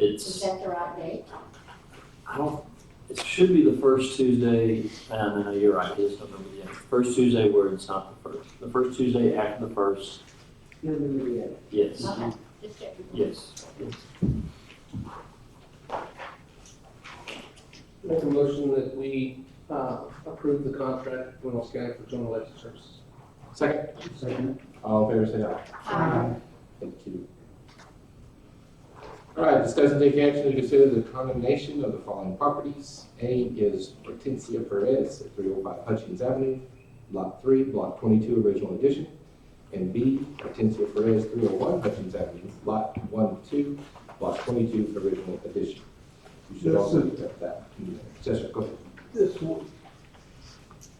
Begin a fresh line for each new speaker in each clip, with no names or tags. It's,
Is that the right date?
I don't, it should be the first Tuesday, and I know you're right, it is November the eighth. First Tuesday where it's not the first, the first Tuesday after the first,
November the eighth.
yes,
Okay, just checking.
yes. yes.
Make a motion that we uh, approve the contract with Buenos County for general election services. Second.
Second.
All in favor, say aye.
Um,
Thank you. All right, discuss and take action to consider the condemnation of the following properties. A is Hortensia Perez at three oh five Hutchins Avenue, Block three, Block twenty-two, original edition. And B, Hortensia Perez, three oh one Hutchins Avenue, Lot one, two, Block twenty-two, original edition. You should
Yes,
also
sir.
accept that. Yes, sir, go ahead.
This one,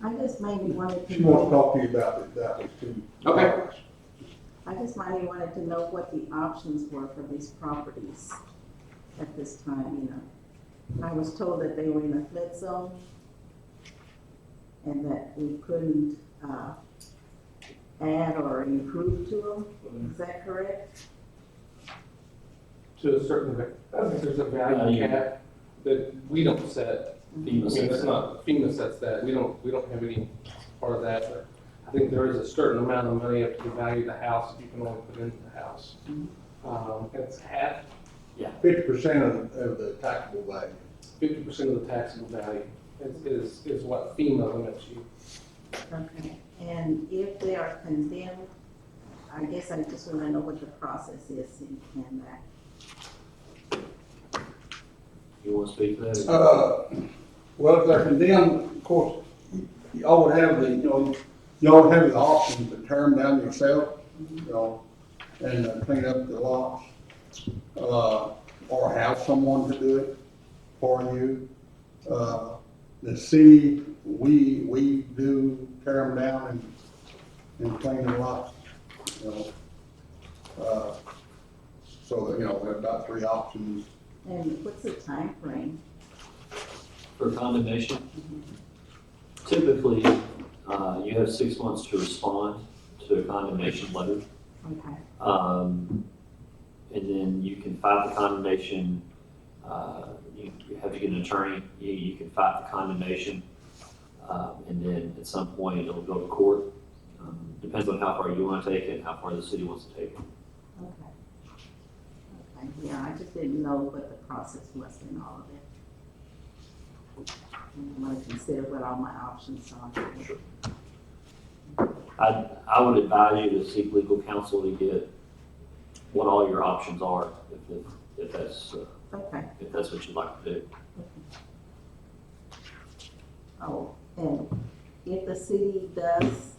I just maybe wanted to
she wants to
know,
talk to you about it, that was too.
Okay.
I just maybe wanted to know what the options were for these properties at this time, you know. I was told that they were in a flood zone and that we couldn't, uh, add or improve to them, is that correct?
To a certain, va- I think there's a
Value.
value cap that we don't set. I
FEMA
mean,
says
that's
that.
not, FEMA sets that, we don't, we don't have any part of that. but I think there is a certain amount of money up to the value of the house, you can only put into the house. Um, It's half,
Fifty percent of, of the taxable value.
fifty percent of the taxable value is- is, is what FEMA limits you.
Okay. And if they are condemned, I guess I just wanna know what the process is in, in that.
You want to speak to that?
Uh, well, if they're condemned, of course, y'all would have the, you know, y'all would have the option to tear them down yourself, you know, and uh, clean up the lots. Uh, or have someone to do it for you. Uh, the city, we, we do tear them down and, and clean the lots, you know. Uh, So, you know, we have about three options.
And what's the time frame?
For condemnation? Typically, uh, you have six months to respond to a condemnation letter.
Okay.
Um, and then you can fight the condemnation, uh, you you have to get an attorney, you, you can fight the condemnation. Um, and then at some point, it'll go to court. Um, Depends on how far you want to take it, and how far the city wants to take it.
Okay. Okay, yeah, I just didn't know what the process was in all of it. I'm gonna consider what all my options are.
I, I would advise you to seek legal counsel to get what all your options are, if, if- if that's, uh,
Okay,
if that's what you'd like to do.
oh, and if the city does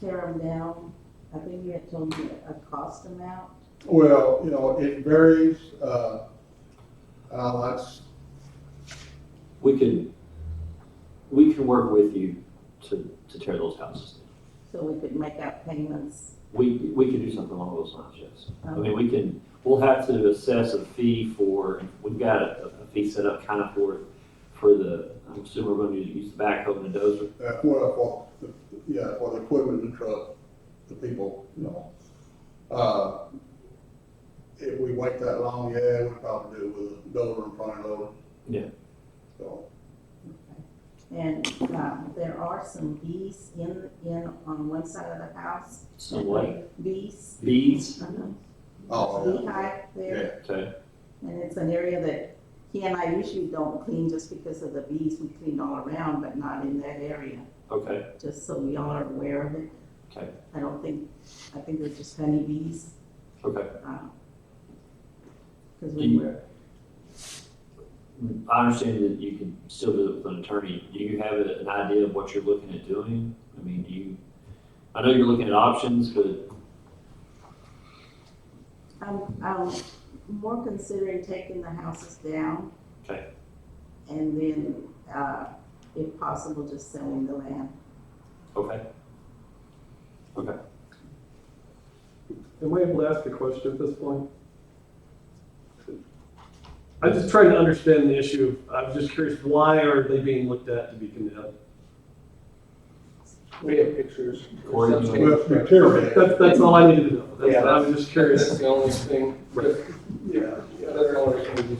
tear them down, I think you had told me a cost amount.
Well, you know, it varies, uh, uh, that's,
We can, we can work with you to, to tear those houses down.
So we could make out payments.
We, we could do something along those lines, yes. I
um,
mean, we can, we'll have to assess a fee for, we've got a, a fee set up kind of for, for the, I'm assuming we're going to use the backhoe and the dozer.
that's what I thought, yeah, for the equipment and truck, the people, you know. Uh, if we wait that long, yeah, we probably do it with a dollar and front loader.
Yeah.
So,
And, um, there are some bees in, in, on one side of the house,
Some way,
bees.
bees,
uh-huh,
oh,
Beehive
yeah,
there.
yeah,
okay,
And it's an area that he and I usually don't clean just because of the bees. We clean all around, but not in that area,
okay,
just so y'all are aware of it.
okay,
I don't think, I think they're just honeybees.
okay.
Because
Do
we
you-
were,
I understand that you can still do it with an attorney. Do you have an idea of what you're looking at doing? I mean, do you, I know you're looking at options, but,
I'm, I'm more considering taking the houses down.
Okay.
And then, uh, if possible, just selling the land.
okay,
Am I able to ask a question at this point? I'm just trying to understand the issue. I'm just curious, why are they being looked at to be condemned?
We have pictures.
Corey, you
well, it's material.
That's, that's all I needed to know. That's, I'm just curious.
That's the only thing.
Right.
Yeah, yeah.
That's the only reason we